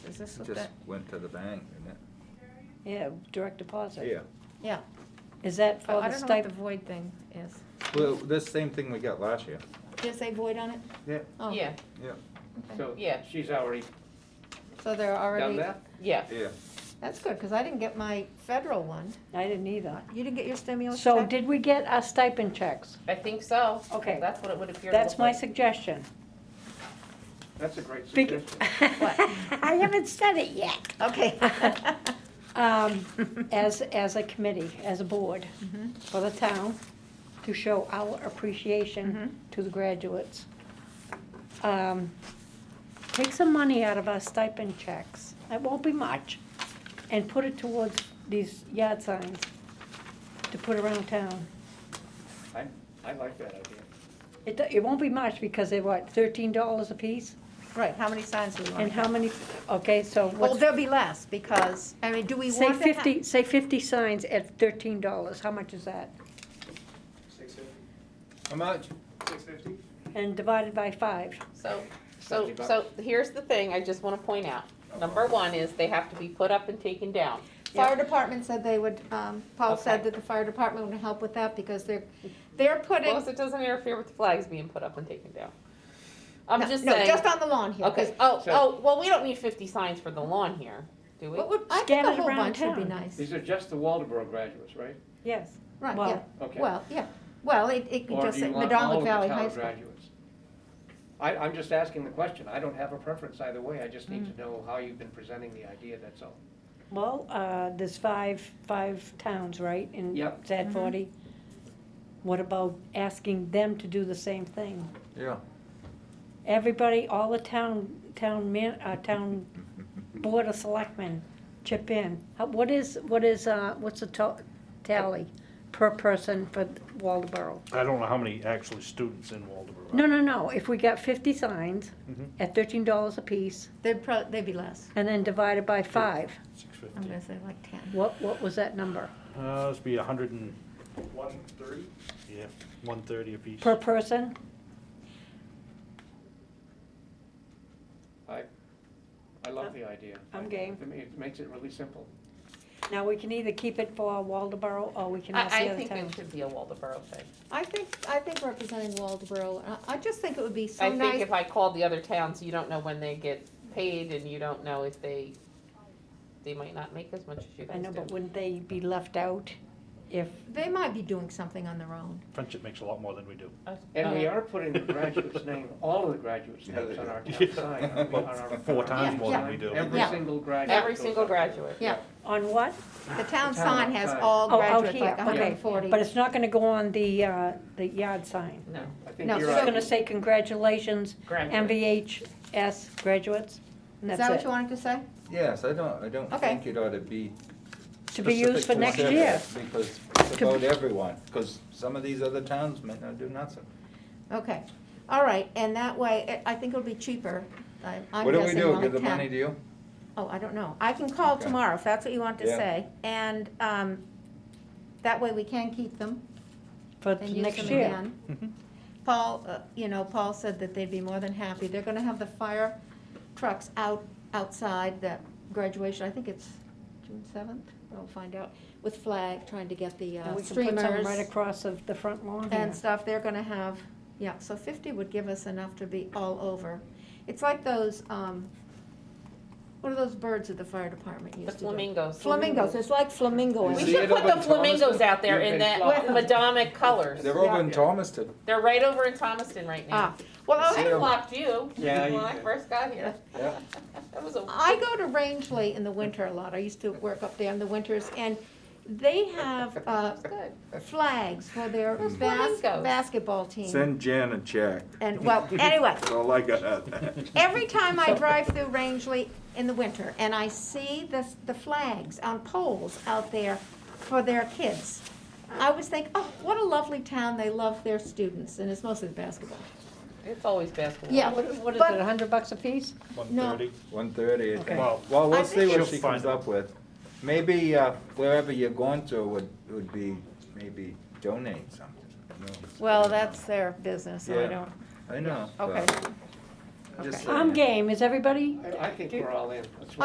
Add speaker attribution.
Speaker 1: this what
Speaker 2: Just
Speaker 1: that?
Speaker 2: went to the bank, didn't
Speaker 3: Yeah, direct deposit.
Speaker 2: it?
Speaker 1: Yeah,
Speaker 3: Is that for
Speaker 1: I
Speaker 3: the
Speaker 1: don't know what the
Speaker 3: stipend?
Speaker 1: void thing is.
Speaker 2: Well, this same thing we got last year.
Speaker 1: Did it say void on it?
Speaker 2: Yeah.
Speaker 1: Oh,
Speaker 4: Yeah,
Speaker 2: Yeah,
Speaker 1: okay.
Speaker 5: So
Speaker 4: Yeah.
Speaker 5: she's already
Speaker 1: So they're
Speaker 5: done
Speaker 1: already,
Speaker 5: that?
Speaker 4: yeah.
Speaker 2: yeah.
Speaker 1: that's good, because I didn't get my federal one.
Speaker 3: I didn't either.
Speaker 1: You didn't get your stimulus
Speaker 3: So
Speaker 1: check?
Speaker 3: did we get our stipend checks?
Speaker 4: I think so.
Speaker 3: Okay.
Speaker 4: That's what it would appear to
Speaker 3: That's
Speaker 4: look
Speaker 3: my
Speaker 4: like.
Speaker 3: suggestion.
Speaker 5: That's a great
Speaker 3: Bec-
Speaker 5: suggestion.
Speaker 3: I haven't said it yet.
Speaker 1: Okay.
Speaker 3: Um, As, as a committee, as a board
Speaker 1: Mm-hmm.
Speaker 3: for the town, to show our
Speaker 1: Mm-hmm.
Speaker 3: appreciation to the graduates. Um, Take some money out of our stipend checks, that won't be much, and put it towards these yard signs to put around town.
Speaker 5: I, I like that idea.
Speaker 3: It, it won't be much because they're what, thirteen dollars a piece?
Speaker 1: Right, how many signs do we want?
Speaker 3: And how many, okay, so
Speaker 1: Well,
Speaker 3: what's,
Speaker 1: there'll be less, because, I mean, do we
Speaker 3: say
Speaker 1: want to have?
Speaker 3: fifty, say fifty signs at thirteen dollars, how much is that?
Speaker 5: Six fifty?
Speaker 2: How much?
Speaker 5: Six fifty?
Speaker 3: And divided by five.
Speaker 4: So, so,
Speaker 5: 50 bucks.
Speaker 4: so here's the thing I just wanna point out. Number one is they have to be put up and taken down.
Speaker 1: Fire department said they would, um, Paul said
Speaker 4: Okay.
Speaker 1: that the fire department would help with that, because they're, they're
Speaker 4: As long as
Speaker 1: putting.
Speaker 4: it doesn't interfere with the flags being put up and taken down. I'm
Speaker 1: No,
Speaker 4: just
Speaker 1: No,
Speaker 4: saying.
Speaker 1: just on the lawn here, 'cause
Speaker 4: Okay, oh,
Speaker 5: So-
Speaker 4: oh, well, we don't need fifty signs for the lawn here, do we?
Speaker 1: what would, I think
Speaker 3: Scan
Speaker 1: a
Speaker 3: it
Speaker 1: whole
Speaker 3: around
Speaker 1: bunch would be
Speaker 3: town.
Speaker 1: nice.
Speaker 5: These are just the Waldeboro graduates, right?
Speaker 3: Yes.
Speaker 1: Right,
Speaker 3: Well-
Speaker 1: yeah,
Speaker 5: Okay.
Speaker 1: well, yeah, well, it, it could
Speaker 5: Or
Speaker 1: just
Speaker 5: do
Speaker 1: say
Speaker 5: you want all
Speaker 1: Medallic
Speaker 5: of the
Speaker 1: Valley High
Speaker 5: town
Speaker 1: School.
Speaker 5: graduates? I, I'm just asking the question. I don't have a preference either way. I just need to know how you've been presenting the idea, that's all.
Speaker 3: Well, uh, there's five, five towns, right? in
Speaker 5: Yep.
Speaker 3: Sad
Speaker 1: Mhm.
Speaker 3: forty. What about asking them to do the same thing?
Speaker 2: Yeah.
Speaker 3: Everybody, all the town, town man, uh, town board of selectmen chip in. How- What is, what is, uh, what's the to- tally per person for Waldeboro?
Speaker 6: I don't know how many actually students in Waldeboro.
Speaker 3: No, no, no, if we got fifty signs
Speaker 6: Mhm.
Speaker 3: at thirteen dollars apiece
Speaker 1: They'd prob, they'd be less,
Speaker 3: and then divided by five,
Speaker 6: Six
Speaker 1: I'm
Speaker 6: fifty.
Speaker 1: gonna say like ten.
Speaker 3: what, what was that number?
Speaker 6: Uh, this be a hundred and,
Speaker 7: One thirty?
Speaker 6: yeah, one thirty apiece.
Speaker 3: Per person?
Speaker 5: I, I love the idea.
Speaker 3: I'm game.
Speaker 5: It ma- It makes it really simple.
Speaker 3: Now, we can either keep it for Waldeboro or we can ask
Speaker 4: I,
Speaker 3: the
Speaker 4: I
Speaker 3: other
Speaker 4: think
Speaker 3: town.
Speaker 4: it should be a Waldeboro thing.
Speaker 1: I think, I think representing Waldeboro, I, I just think it would be so
Speaker 4: I think
Speaker 1: nice.
Speaker 4: if I called the other towns, you don't know when they get paid and you don't know if they, they might not make as much as you
Speaker 3: I
Speaker 4: guys
Speaker 3: know, but
Speaker 4: do.
Speaker 3: wouldn't they be left out if,
Speaker 1: They might be doing something on their own.
Speaker 6: Friendship makes a lot more than we do.
Speaker 5: And we are putting the graduates' name, all of the graduates'
Speaker 2: Yeah, they
Speaker 5: names on
Speaker 2: do.
Speaker 5: our town
Speaker 6: Yeah.
Speaker 5: sign. on the-
Speaker 6: Well,
Speaker 5: on our-
Speaker 6: four
Speaker 5: on our
Speaker 6: times
Speaker 1: more than
Speaker 5: sign.
Speaker 6: we do.
Speaker 5: Every
Speaker 1: Yeah.
Speaker 5: single graduate.
Speaker 4: Every
Speaker 5: goes
Speaker 4: single
Speaker 5: up there.
Speaker 4: graduate.
Speaker 1: Yeah,
Speaker 3: on what?
Speaker 1: the town
Speaker 5: The town
Speaker 1: sign has
Speaker 5: sign.
Speaker 1: all
Speaker 3: Oh, out
Speaker 1: graduates,
Speaker 3: here,
Speaker 1: like
Speaker 3: okay.
Speaker 1: hundred and forty.
Speaker 3: But it's not gonna go on the, uh, the yard sign.
Speaker 4: No,
Speaker 5: I think
Speaker 1: No,
Speaker 5: you're
Speaker 1: so-
Speaker 3: It's
Speaker 5: right.
Speaker 3: gonna say congratulations,
Speaker 4: graduate.
Speaker 3: MVHS graduates, and
Speaker 1: Is
Speaker 3: that's
Speaker 1: that what you
Speaker 3: it.
Speaker 1: wanted to say?
Speaker 2: Yes, I don't, I don't
Speaker 1: Okay.
Speaker 2: think it ought to be.
Speaker 3: To be used for
Speaker 2: specific
Speaker 3: next
Speaker 2: to that,
Speaker 3: year.
Speaker 2: Because it's
Speaker 3: To-
Speaker 2: about everyone, because some of these other towns might not do nothing.
Speaker 1: Okay, all right, and that way, eh, I I think it'll be cheaper. I- I'm
Speaker 2: What do we
Speaker 1: guessing
Speaker 2: do,
Speaker 1: only
Speaker 2: give the
Speaker 1: 10.
Speaker 2: money to you?
Speaker 1: Oh, I don't know. I can call
Speaker 2: Okay.
Speaker 1: tomorrow, if that's what you want to
Speaker 2: Yeah.
Speaker 1: say. And um, that way we can keep them
Speaker 3: for
Speaker 1: and use
Speaker 3: next
Speaker 1: them
Speaker 3: year.
Speaker 1: again. Mm-hmm. Paul, uh, you know, Paul said that they'd be more than happy. They're gonna have the fire trucks out, outside the graduation. I think it's June seventh, I'll find out, with flag, trying to get the
Speaker 3: And
Speaker 1: uh,
Speaker 3: we can put some right
Speaker 1: streamers
Speaker 3: across of the front lawn here.
Speaker 1: and stuff. They're gonna have, yeah, so fifty would give us enough to be all over. It's like those, um, what are those birds that the fire department used
Speaker 4: The
Speaker 1: to do?
Speaker 4: flamingos.
Speaker 1: Flamingos, it's like flamingo.
Speaker 2: You
Speaker 4: We
Speaker 2: see
Speaker 4: should
Speaker 2: it
Speaker 4: put
Speaker 2: over
Speaker 4: the
Speaker 2: in
Speaker 4: flamingos
Speaker 2: Thomaston?
Speaker 4: out there
Speaker 5: You've
Speaker 4: in
Speaker 5: been
Speaker 4: that
Speaker 1: flying.
Speaker 4: Madonic colors.
Speaker 2: They're over in
Speaker 5: Yeah.
Speaker 2: Thomaston.
Speaker 4: They're right over in Thomaston right
Speaker 1: Ah,
Speaker 4: now.
Speaker 1: well,
Speaker 4: I
Speaker 1: I,
Speaker 2: See
Speaker 4: have
Speaker 2: 'em.
Speaker 4: blocked you
Speaker 5: Yeah,
Speaker 4: when
Speaker 5: you
Speaker 4: I
Speaker 5: did.
Speaker 4: first got here.
Speaker 2: Yeah.
Speaker 4: That was a.
Speaker 1: I go to Rangeley in the winter a lot, I used to work up there in the winters, and they have, uh,
Speaker 4: That's good.
Speaker 1: flags for their
Speaker 4: Those
Speaker 1: bas-
Speaker 4: flamingos.
Speaker 1: basketball team.
Speaker 2: Send Jan a check,
Speaker 1: And, well, anyway,
Speaker 2: that's all I got out of that.
Speaker 1: every time I drive through Rangeley in the winter, and I see the, the flags on poles out there for their kids, I always think, oh, what a lovely town, they love their students, and it's mostly basketball.
Speaker 4: It's always basketball.
Speaker 1: Yeah,
Speaker 3: What what is
Speaker 1: but-
Speaker 3: it, a hundred bucks a piece?
Speaker 6: One
Speaker 1: No.
Speaker 6: thirty.
Speaker 2: One thirty, I
Speaker 3: Okay.
Speaker 2: think.
Speaker 6: Well,
Speaker 2: Well,
Speaker 1: I
Speaker 2: we'll see
Speaker 1: think-
Speaker 2: what
Speaker 6: She'll
Speaker 2: she comes
Speaker 6: find out.
Speaker 2: up with. Maybe uh, wherever you're going to would, would be, maybe donate something. you know.
Speaker 1: Well, that's their business,
Speaker 2: so I Yeah. don't- I know. but
Speaker 1: Okay.
Speaker 2: just
Speaker 1: Okay.
Speaker 2: saying.
Speaker 3: I'm game, is everybody?
Speaker 5: I I think we're all in. Let's